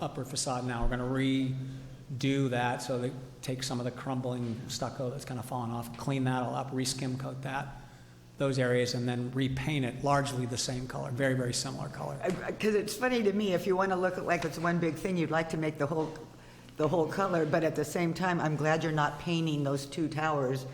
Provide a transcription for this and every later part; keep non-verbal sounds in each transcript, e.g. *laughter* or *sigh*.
upper facade now. We're going to redo that, so they take some of the crumbling stucco that's kind of fallen off, clean that all up, re-skim coat that, those areas, and then repaint it largely the same color, very, very similar color. Because it's funny to me, if you want to look at like it's one big thing, you'd like to make the whole, the whole color, but at the same time, I'm glad you're not painting those two towers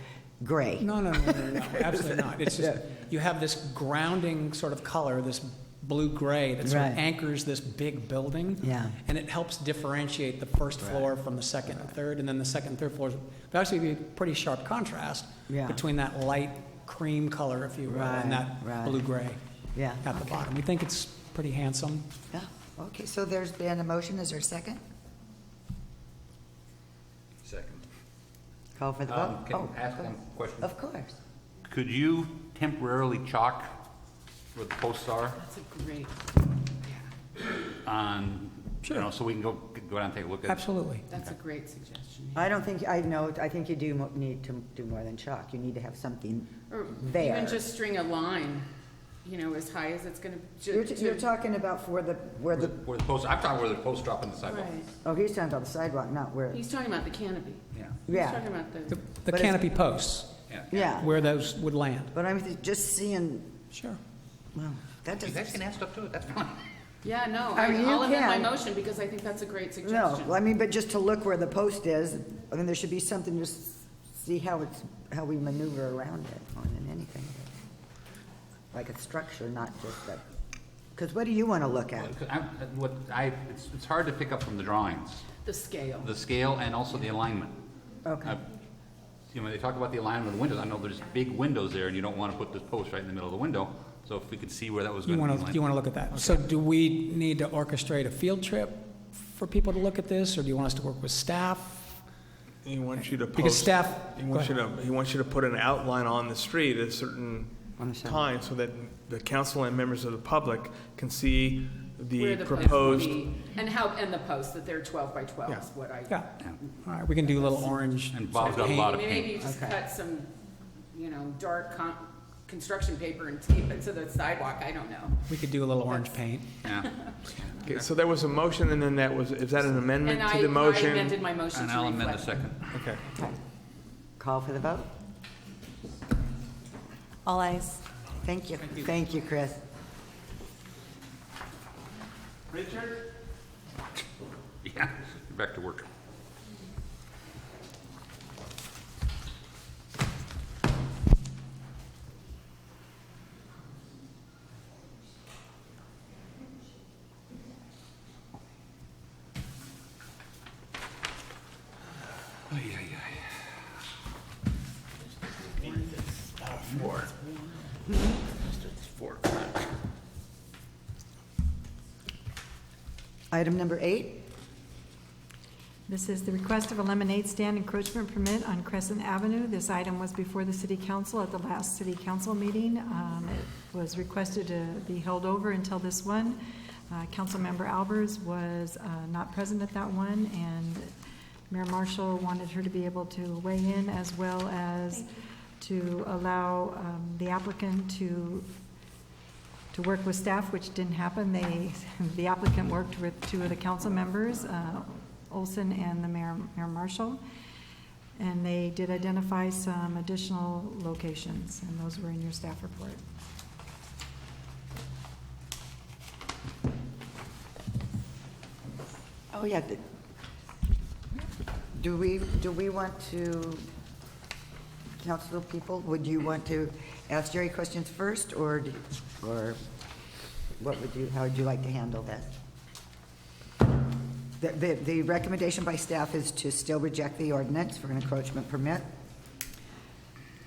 gray. No, no, no, no, *laughs* no, no, absolutely not. It's just, you have this grounding sort of color, this blue-gray that sort of Right. anchors this big building. Yeah. And it helps differentiate the first floor from the second and third, and then the second and third floors. There actually be a pretty sharp contrast Yeah. between that light cream color, if you will, Right, and that right. blue-gray Yeah. at the bottom. We think it's pretty handsome. Yeah, okay, so there's been a motion, is there a second? Second. Call for the Um, vote. Can Oh, I ask of one course. question? Of course. Could you temporarily chalk where the posts are That's a great, on, you Sure. know, so we can go, go down and take a look at? Absolutely. that's a great suggestion. I don't think, I know, I think you do mo- need to do more than chalk. You need to have something Or there. even just string a line, you know, as high as it's gonna. ju- You're, t- to- you're talking about for the, where the, Where the posts, I'm talking where the posts drop on the sidewalk. Right. oh, he's talking about the sidewalk, not where, He's talking about the canopy. Yeah, Yeah. He's talking about The- the, The But it's- canopy posts, yeah. yeah. where those would land. But I'm th- just seeing, Sure. well, that You guys doesn't, can add stuff to it, that's *laughs* fine. yeah, no, I I- mean, you I'll amend my can. motion because I think that's a great no, suggestion. I mean, but just to look where the post is, I mean, there should be something, just see how it's, how we maneuver around it more than anything. Like a structure, not just a, because what do you want to look at? Because I'm- uh, What I, it's, it's hard to pick up from the drawings, The scale. the scale and also the alignment. Okay, I- You know, when they talk about the alignment of the windows, I know there's big windows there and you don't want to put this post right in the middle of the window. So if we could see where that was You going to be. want to, you aligned. want to look at that. So do we need to orchestrate a field trip for people to look at this, or do you want us to work with staff? He wants you to post. Because staff- He go wants you to, he wants you to put an outline on the street at a certain time so that the council and members of the public can see the where post would proposed. be, And how, and the posts, that they're twelve by twelve is Yeah. what I. Yeah, all right, we can do a little orange. And Bob's got a paint. lot of Maybe paint. you just Okay. cut some, you know, dark con, construction paper and tape it to the sidewalk, I don't know. We could do a little orange paint. Yeah. Okay, so there was a motion and then that was, is that an amendment And I, to the I motion? amended my motion And to I'll amend the reflect. second. Okay. okay. Call for the vote? All eyes. Thank you. Thank you, Chris. Yeah, back to work. Four. Four. Item number eight? This is the request of a lemonade stand encroachment permit on Crescent Avenue. This item was before the city council at the last city council meeting. Um, It was requested to be held over until this one. Uh, Councilmember Albers was uh, not present at that one, and Mayor Marshall wanted her to be able to weigh in as well as to allow um, the applicant to to work with staff, which didn't happen. They, *laughs* the applicant worked with two of the council members, uh, Olson and the mayor, Mayor Marshall, and they did identify some additional locations, and those were in your staff report. Oh, yeah. the- Do we, do we want to, council people, would you want to ask Jerry questions first, or, do- or what would you, how would you like to handle this? The, the, the recommendation by staff is to still reject the ordinance for an encroachment permit.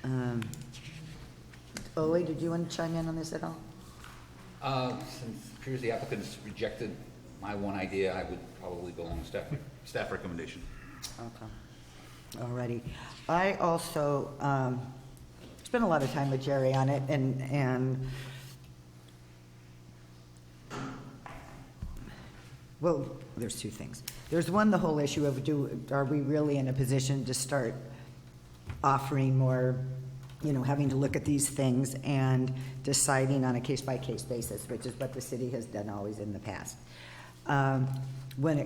Um, Ole, did you want to chime in on this at all? Uh, Since it appears the applicants rejected my one idea, I would probably go along with staff, staff recommendation. Okay. All righty. I also um, spent a lot of time with Jerry on it, and, and, well, there's two things. There's one, the whole issue of do, are we really in a position to start offering more, you know, having to look at these things and deciding on a case-by-case basis, which is what the city has done always in the past. Um, When it